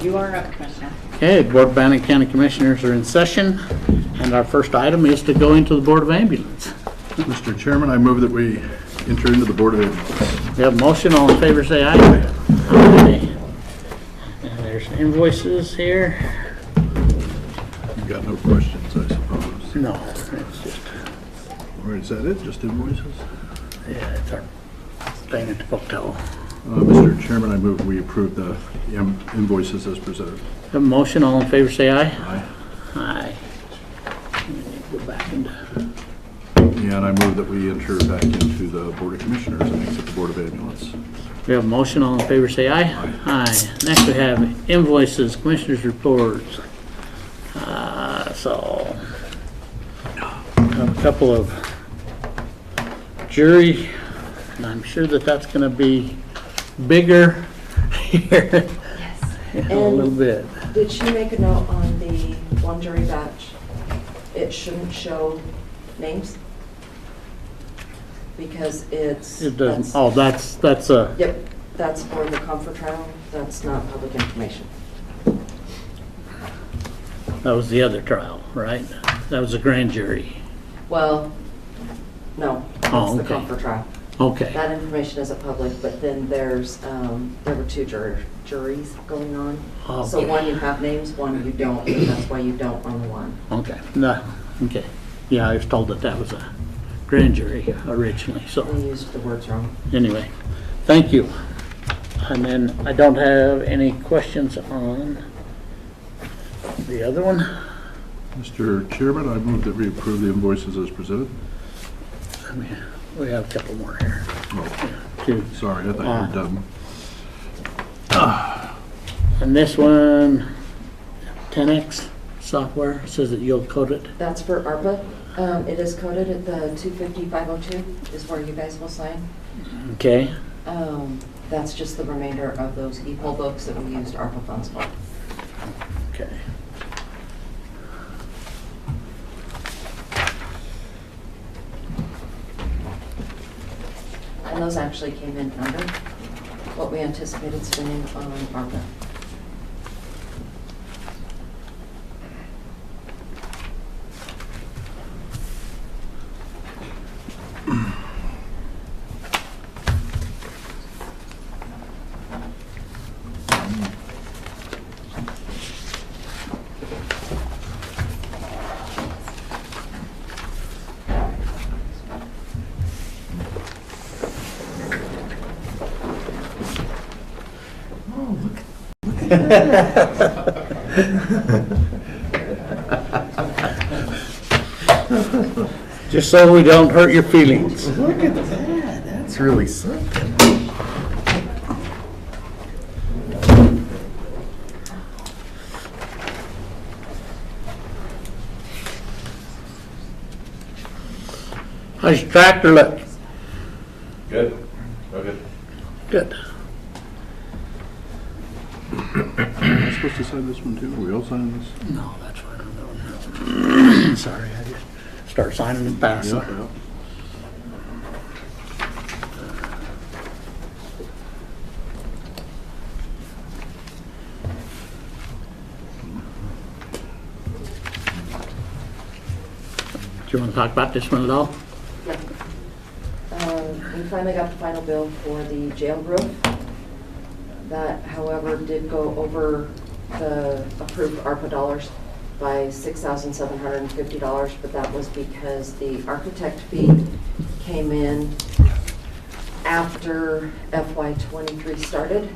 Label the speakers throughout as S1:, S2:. S1: You are up, Commissioner.
S2: Okay, Board of Bannock County Commissioners are in session, and our first item is to go into the Board of Ambulance.
S3: Mr. Chairman, I move that we enter into the Board of Ambulance.
S2: We have a motion, all in favor, say aye. Aye. And There's invoices here.
S3: You've got no questions, I suppose.
S2: No, it's just,
S3: Or is that it, just invoices?
S2: yeah, it's our thing at the hotel.
S3: Uh, Mr. Chairman, I move we approve the im- invoices as presented.
S2: Have a motion, all in favor, say aye.
S3: Aye.
S2: Aye. And then you Go back into,
S3: And I move that we enter back into the Board of Commissioners and exit the Board of Ambulance.
S2: we have a motion, all in favor, say aye. Aye. Next, we have invoices, Commissioners' reports. Uh, So, have a couple of jury, and I'm sure that that's going to be bigger here in a little
S4: And
S2: bit.
S4: did she make a note on the one jury batch? It shouldn't show names? Because it's.
S2: It doesn't,
S4: that's-
S2: oh, that's, that's a,
S4: Yep, that's for the comfort trial, that's not public information.
S2: that was the other trial, right? That was a grand jury.
S4: Well, no, that's
S2: Oh,
S4: the
S2: okay.
S4: comfort trial.
S2: Okay.
S4: That information isn't public, but then there's, um, there were two jur- juries going on. So
S2: Oh, Okay.
S4: one you have names, one you don't, and that's why you don't on the one.
S2: Okay, no, okay. Yeah, I was told that that was a grand jury originally,
S4: They
S2: so
S4: used the words wrong.
S2: anyway, thank you. And then I don't have any questions on the other one.
S3: Mr. Chairman, I move that we approve the invoices as presented.
S2: I mean, We have a couple more here.
S3: Oh,
S2: too.
S3: sorry, I thought you were done.
S2: And this one, 10X software, says that you'll code it.
S4: That's for ARPA. Um, It is coded at the 250-502 is where you guys will sign.
S2: Okay,
S4: Um, That's just the remainder of those e-poll books that we used ARPA funds for.
S2: okay.
S4: And those actually came in under what we anticipated spending on ARPA.
S2: Just so we don't hurt your feelings.
S5: Look at that, that's really something.
S2: How's your tractor look?
S6: Good, real good.
S2: Good.
S3: Am I supposed to sign this one too? Are we all signing this?
S2: No, that's what I'm doing. Sorry, I just start signing and passing.
S3: Yeah, yeah.
S2: Do you want to talk about this one at all?
S4: Yeah. Um, We finally got the final bill for the jail roof. That, however, did go over the approved ARPA dollars by $6,750, but that was because the architect fee came in after FY '23 started,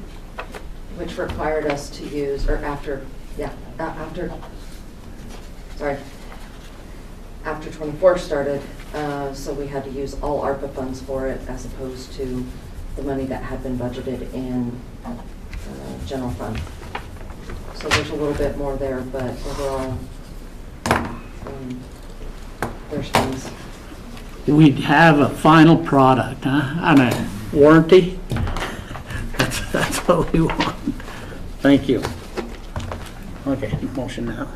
S4: which required us to use, or after, yeah, a- after, sorry, after 24 started, uh, so we had to use all ARPA funds for it as opposed to the money that had been budgeted in uh, general fund. So there's a little bit more there, but overall, um, there's funds.
S2: Do we have a final product, huh? And a warranty? That's, that's what we want. Thank you. Okay, motion now.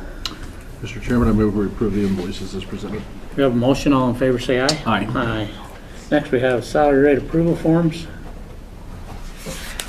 S3: Mr. Chairman, I move we approve the invoices as presented.
S2: We have a motion, all in favor, say aye.
S3: Aye.
S2: Aye. Next, we have salary rate approval forms.